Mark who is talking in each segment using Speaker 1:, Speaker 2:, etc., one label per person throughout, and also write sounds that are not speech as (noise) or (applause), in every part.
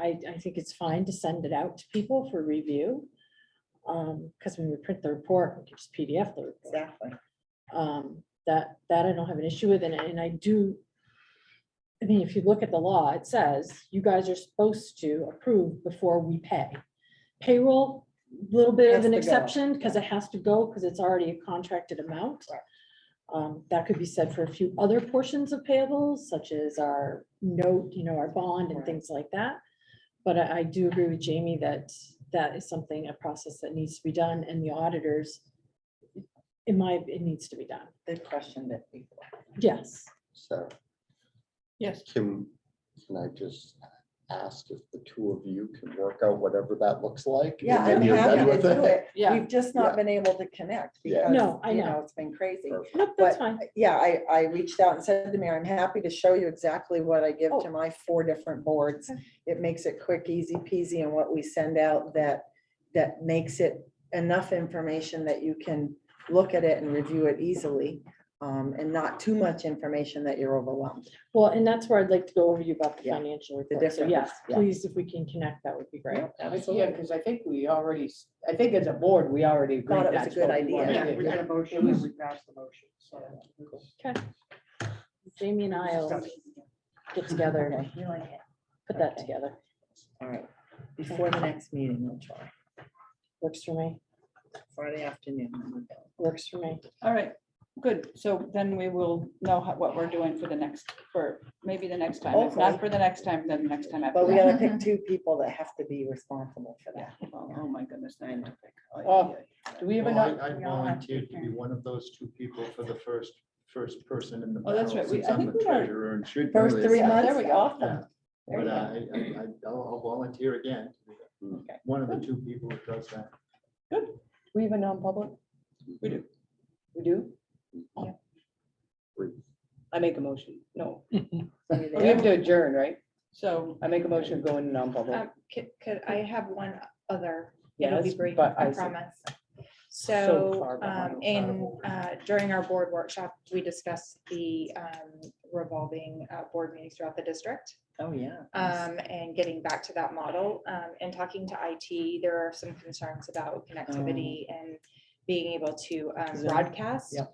Speaker 1: I, I think it's fine to send it out to people for review. Um, because when we print the report, we can just PDF the report.
Speaker 2: Exactly.
Speaker 1: Um, that, that I don't have an issue with, and, and I do. I mean, if you look at the law, it says you guys are supposed to approve before we pay. Payroll, little bit of
Speaker 2: Has
Speaker 1: an
Speaker 2: to go,
Speaker 1: exception, because it has to go, because it's already a contracted amount.
Speaker 2: Right.
Speaker 1: Um, that could be said for a few other portions of payables, such as our note, you know, our bond and
Speaker 2: Right.
Speaker 1: things like that. But I, I do agree with Jamie that that is something, a process that needs to be done, and the auditors, in my, it needs to be done,
Speaker 2: They've questioned it before.
Speaker 1: yes.
Speaker 3: So.
Speaker 2: Yes.
Speaker 3: Can, can I just ask if the two of you can work out whatever that looks like? and
Speaker 2: Yeah, I'm
Speaker 3: then you're done
Speaker 2: happy to
Speaker 3: with
Speaker 2: do it.
Speaker 1: Yeah.
Speaker 2: We've just
Speaker 3: Yeah.
Speaker 2: not been able to connect
Speaker 3: Yeah.
Speaker 2: because,
Speaker 1: No, I
Speaker 2: you
Speaker 1: know.
Speaker 2: know, it's been crazy.
Speaker 3: Perfect.
Speaker 1: Nope, that's fine,
Speaker 2: Yeah, I, I reached out and said to Mary, I'm happy to show you exactly what I give
Speaker 1: Oh.
Speaker 2: to my four different boards.
Speaker 1: Okay.
Speaker 2: It makes it quick, easy peasy, and what we send out that, that makes it enough information that you can look at it and review it easily, um, and not too much information that you're overwhelmed.
Speaker 1: well, and that's where I'd like to go over you about the
Speaker 2: Yeah.
Speaker 1: financial
Speaker 2: The
Speaker 1: report, so
Speaker 2: difference,
Speaker 1: yes,
Speaker 2: yeah.
Speaker 1: please, if we can connect, that would be great.
Speaker 4: Yeah, because I think we already, s- I think as a board, we already agreed.
Speaker 2: Thought it was a
Speaker 4: that's
Speaker 2: good
Speaker 4: what we
Speaker 2: idea.
Speaker 4: wanted.
Speaker 5: Yeah, we had a motion, and we passed the motion, so.
Speaker 1: Jamie and I'll get together and
Speaker 2: Okay, you like it.
Speaker 1: put that
Speaker 2: Okay.
Speaker 1: together,
Speaker 2: All right, before the next meeting, we'll try,
Speaker 1: works for me,
Speaker 2: Friday afternoon. I'm available.
Speaker 1: works for me,
Speaker 5: All right, good. So then we will know how- what we're doing for the next, for maybe the next time. If
Speaker 2: Hopefully.
Speaker 5: not for the next time, then the next time after
Speaker 2: But we
Speaker 5: that.
Speaker 2: gotta
Speaker 6: (laughs)
Speaker 2: pick two people that have to be responsible for that.
Speaker 5: Yeah. Oh, oh my goodness. I know.
Speaker 4: Oh, Do we even
Speaker 7: Well,
Speaker 4: know?
Speaker 7: I I
Speaker 5: we all have to
Speaker 7: volunteered to be
Speaker 5: prepare.
Speaker 7: one of those two people for the first, first person in the.
Speaker 5: Oh, that's
Speaker 7: barrel
Speaker 5: right. We-
Speaker 7: since
Speaker 5: I
Speaker 7: I'm
Speaker 5: think
Speaker 7: the
Speaker 5: we are-
Speaker 7: treasurer and should know
Speaker 2: First
Speaker 7: this.
Speaker 2: three
Speaker 5: Yeah,
Speaker 2: months.
Speaker 5: There we go. Awesome. There we
Speaker 7: But I,
Speaker 5: go.
Speaker 7: I, I- I'll I'll volunteer again.
Speaker 5: Okay.
Speaker 7: One of the two people who does that.
Speaker 4: We even know in public?
Speaker 5: We do.
Speaker 4: We do?
Speaker 5: Yeah.
Speaker 4: I make a motion. No,
Speaker 2: Are you
Speaker 4: we have
Speaker 2: there?
Speaker 4: to adjourn, right?
Speaker 5: So
Speaker 4: I make a motion going non-public.
Speaker 2: Uh,
Speaker 5: Uh,
Speaker 6: Um, Could, could I have one other? It'll be
Speaker 4: Yes,
Speaker 6: brief,
Speaker 4: but
Speaker 6: I
Speaker 4: I said-
Speaker 6: promise.
Speaker 4: So
Speaker 6: So
Speaker 4: far
Speaker 6: um,
Speaker 4: behind.
Speaker 6: in, uh, during our board workshop, we discussed the um, revolving uh, board meetings throughout the district
Speaker 2: Oh, yeah.
Speaker 6: um, and getting back to that model. um, And talking to IT, there are some concerns about connectivity and being able to um,
Speaker 2: Zoom.
Speaker 6: broadcast.
Speaker 2: Yep.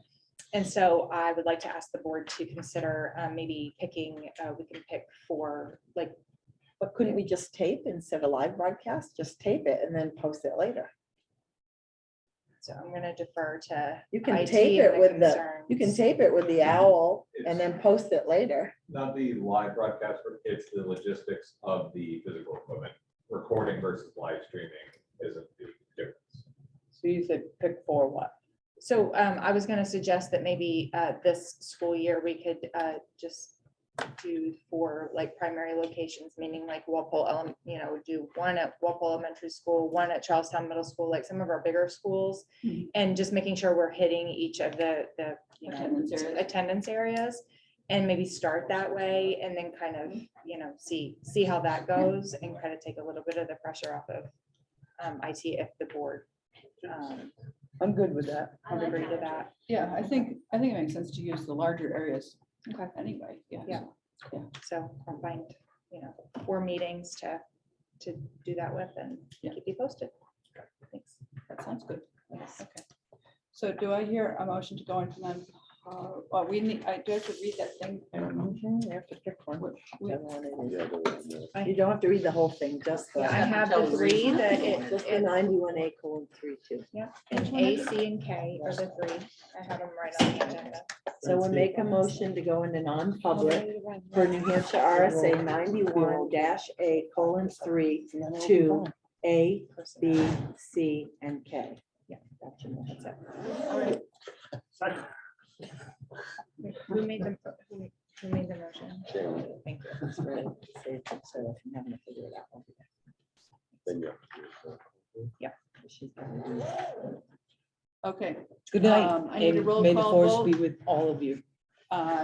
Speaker 6: And so I would like to ask the board to consider uh, maybe picking, uh, we can pick for like
Speaker 2: But couldn't we just tape instead of live broadcast? Just tape it and then post it later.
Speaker 6: So I'm gonna defer to.
Speaker 2: You can
Speaker 6: IT
Speaker 2: tape
Speaker 6: and
Speaker 2: it with the,
Speaker 6: concerns.
Speaker 2: you can tape it with the owl and then post it later.
Speaker 8: not the live broadcast, but it's the logistics of the physical equipment. Recording versus live streaming isn't the difference.
Speaker 4: So you said pick for what?
Speaker 6: So um, I was gonna suggest that maybe uh, this school year, we could uh, just do for like primary locations, meaning like Walpole, Elem- you know, do one at Walpole Elementary School, one at Charlestown Middle School, like some of our bigger schools.
Speaker 5: Mhm.
Speaker 6: And just making sure we're hitting each of the, the, you know,
Speaker 5: Attendance areas.
Speaker 6: attendance areas. And maybe start that way and then kind of, you know, see, see how that goes and kind of take a little bit of the pressure off of um, IT if the board um,
Speaker 4: I'm good with that.
Speaker 6: would agree to that.
Speaker 5: Yeah, I think, I think it makes sense to use the larger areas
Speaker 6: Okay,
Speaker 5: anyway, yeah.
Speaker 6: Yeah. so I'll find, you know, four meetings to, to do that with and
Speaker 5: Yeah.
Speaker 6: keep you posted. Thanks.
Speaker 5: That sounds good. Okay. So do I hear a motion to go into non, uh, well, we need, I do have to read that thing.
Speaker 2: Mhm, You have to pick one.
Speaker 5: What- we-
Speaker 2: whichever one it
Speaker 3: Oh, Yeah, the- the-
Speaker 2: is. You don't have to read the whole thing, just
Speaker 6: I
Speaker 2: the,
Speaker 6: have the three that it,
Speaker 2: just the
Speaker 6: it-
Speaker 2: ninety-one A colon three two.
Speaker 6: and A, C, and K are the three. I have them right on the agenda.
Speaker 2: So we'll make a motion to go into non-public for New Hampshire RSA ninety-one dash A colon three, two, A, B, C, and K. Yeah. that's your motion.
Speaker 6: Who made the, who who made the motion?
Speaker 3: Jamie,
Speaker 6: Thank you.
Speaker 2: That's right. So if I'm having to figure it out, I'll do
Speaker 3: then you have to do it.
Speaker 2: that. She's gonna do it.
Speaker 5: Okay,
Speaker 4: Good night.
Speaker 5: Um, I need a
Speaker 4: and
Speaker 5: roll
Speaker 4: May the
Speaker 5: call
Speaker 4: force
Speaker 5: vote.
Speaker 4: be with all of you.
Speaker 5: uh,